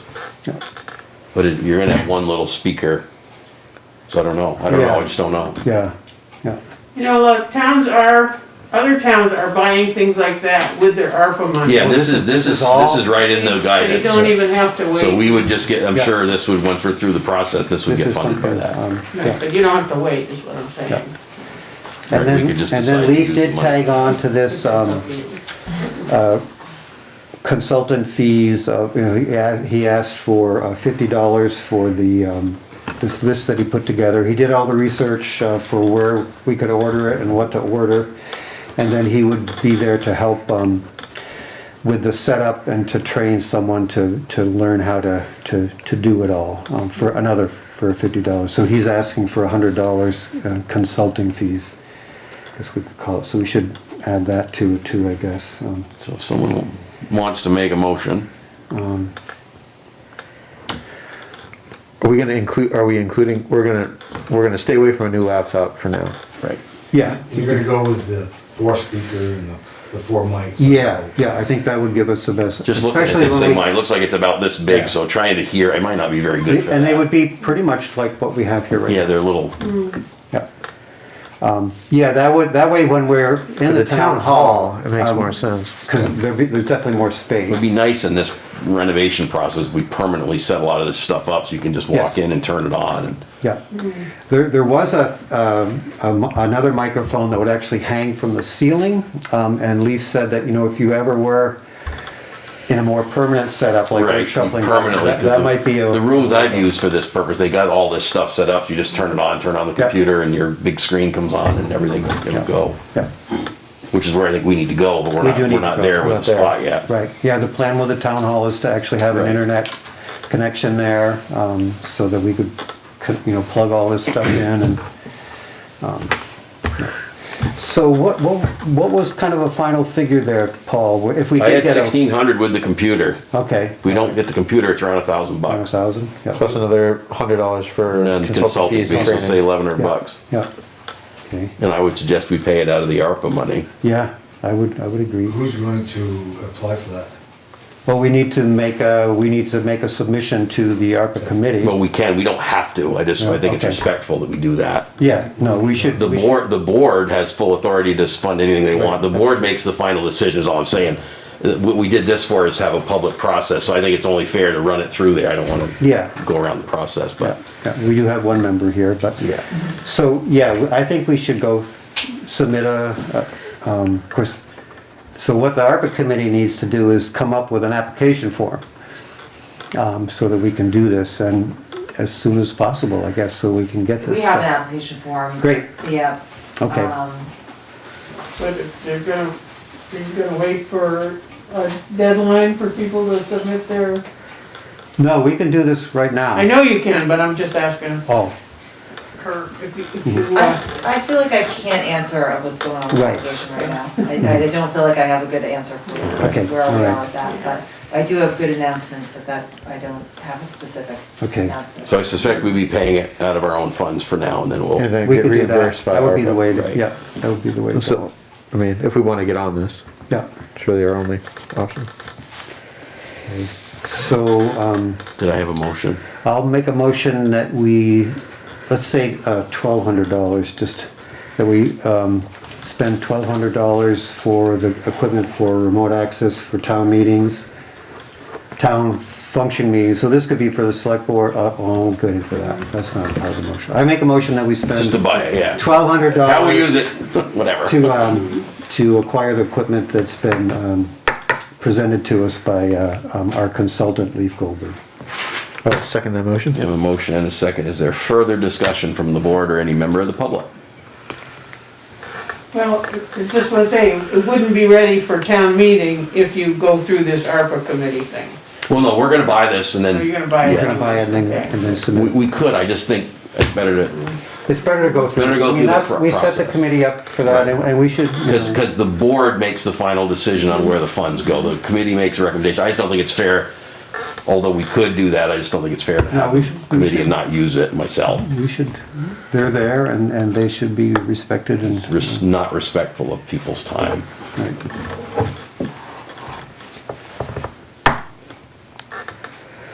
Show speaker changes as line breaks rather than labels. But it- you're in that one little speaker. So I don't know. I don't know. I just don't know.
Yeah, yeah,
You know, look, towns are, other towns are buying things like that with their ARPA money.
Yeah, this is, this
This
is,
is all-
this is right in the
They don't
guidance.
even have to
So
wait,
we would just get, I'm
Yeah.
sure this would, once we're through the process, this would
this
get
is
funded by
something,
that.
um, yeah.
but you don't have to wait, is what I'm saying.
Right, we
And then,
could just
and
decide to
then
use
Leaf
the
did
money.
tag on to this, um, consultant fees, of- you know, he a- he asked for uh, fifty dollars for the, um, this list that he put together. He did all the research uh, for where we could order it and what to order. And then he would be there to help um, with the setup and to train someone to, to learn how to, to, to do it all um, for another, for fifty dollars. So he's asking for a hundred dollars uh, consulting fees. I guess we could call it, so we should add that to, too, I guess. um.
So if someone wants to make a motion,
Are we gonna include, are we including, we're gonna, we're gonna stay away from a new laptop for now.
right?
Yeah,
You're gonna go with the four speaker and the, the four mics.
Yeah, yeah, I think that would give us the best.
Just looking at
especially
this
when
thing,
we-
Mike, it looks like it's about this
Yeah.
big, so trying to hear, it might not be very good for
And they
that.
would be pretty much like what we have here right
Yeah,
now.
they're little,
Yeah. Um, Yeah, that would, that way when we're in the town hall. um,
It makes more sense.
Because there'd be, there's definitely more
it'd be
space.
nice in this renovation process, we permanently set a lot of this stuff up, so you can just walk
Yes.
in and turn it on and.
Yeah. There, there was a, um, a mi- another microphone that would actually hang from the ceiling. um, And Leaf said that, you know, if you ever were in a more permanent setup, like we're
Right,
shuffling.
permanently.
That
'cause
that
the-
might be a.
The rooms I've used for this purpose, they got all this stuff set up, you just turn it on, turn on the
Yeah.
computer, and your big screen comes on and everything, it'll go.
Yeah.
Which is where I think we need to go, but we're
We
not,
do need
we're
to
not
go.
there
We're
with
not
the spot
there.
yet.
Right, yeah, the plan with the town hall is to actually have an
Right.
internet connection there, um, so that we could, could, you know, plug all this stuff in and, um, so what, what, what was kind of a final figure there, Paul, if we
I
did
had
get a?
sixteen hundred with the computer.
Okay,
If we don't get the computer, it's around a thousand
a
bucks.
thousand, yeah,
Plus another hundred dollars for
And then
consultant
consulting
fees
fees
and
will say
training.
eleven hundred
Yeah.
bucks.
yeah, okay,
And I would suggest we pay it out of the ARPA money.
yeah, I would, I would agree.
Who's going to apply for that?
Well, we need to make a, we need to make a submission to the ARPA committee.
Well, we can, we don't have to, I just, I think it's
Okay.
respectful that we do that.
Yeah, no, we should.
The
we should-
board, the board has full authority to fund anything they want. The board makes the final decision, is all I'm saying. Uh, What we did this for is have a public process, so I think it's only fair to run it through there. I don't want to
Yeah.
go around the process, but
Yeah, We do have one member here, but.
Yeah.
So, yeah, I think we should go submit a, a, um, of course, so what the ARPA committee needs to do is come up with an application form. Um, so that we can do this and as soon as possible, I guess, so we can get this.
We have an
stuff.
application form.
Great.
Yeah.
Okay.
Um,
But if they're gonna, they're gonna wait for a deadline for people to submit their,
No, we can do this right now.
I know you can, but I'm just asking
Oh,
her if you,
Mm-hmm.
if you, uh,
I, I feel like I can't answer of what's going on with the
Right. Mm-hmm.
application right now. I, I don't feel like I have a good answer for you, so
Okay,
where we
all right.
are with that, but I do have good announcements, but that, I don't have a specific
Okay.
announcement.
so I suspect we'd be paying it out of our own funds for now, and then we'll.
And then
we
get
could do that.
reimbursed by
That would be
ARPA.
the way, to
Right.
yeah, that would be the way to go.
So, I mean, if we wanna get on this,
Yeah,
it's really our only option.
so, um,
Did I have a motion?
I'll make a motion that we, let's say, uh, twelve hundred dollars, just, that we, um, spend twelve hundred dollars for the equipment for remote access for town meetings, town function meetings, so this could be for the select board, uh, oh, I'm good for that, that's not a part of the motion. I make a motion that we
Just to
spend
buy it, yeah.
twelve hundred dollars.
How we use it, whatever.
To, um, to acquire the equipment that's been, um, presented to us by, uh, um, our consultant, Leaf Goldberg.
I'll Oh, second that motion.
We have a motion and a second. Is there further discussion from the board or any member of the public?
well, it's just what I'm saying, it wouldn't be ready for town meeting if you go through this ARPA committee thing.
Well, no, we're gonna buy this and
Are you
then,
gonna buy it?
We're gonna buy it and then, and then submit.
we, we could, I just think it's better to
It's better to go through.
Better to go
I mean,
through the
that's-
fr-
We set the
process.
committee up for that, and and we should. you
Because,
know,
because the board makes the final decision on where the funds go. The committee makes a recommendation. I just don't think it's fair, although we could do that, I just don't think it's fair to have
we should-
the
we
committee
should.
and not use it myself.
We should, they're there, and, and they should be respected and.
It's res- not respectful of people's time.
right.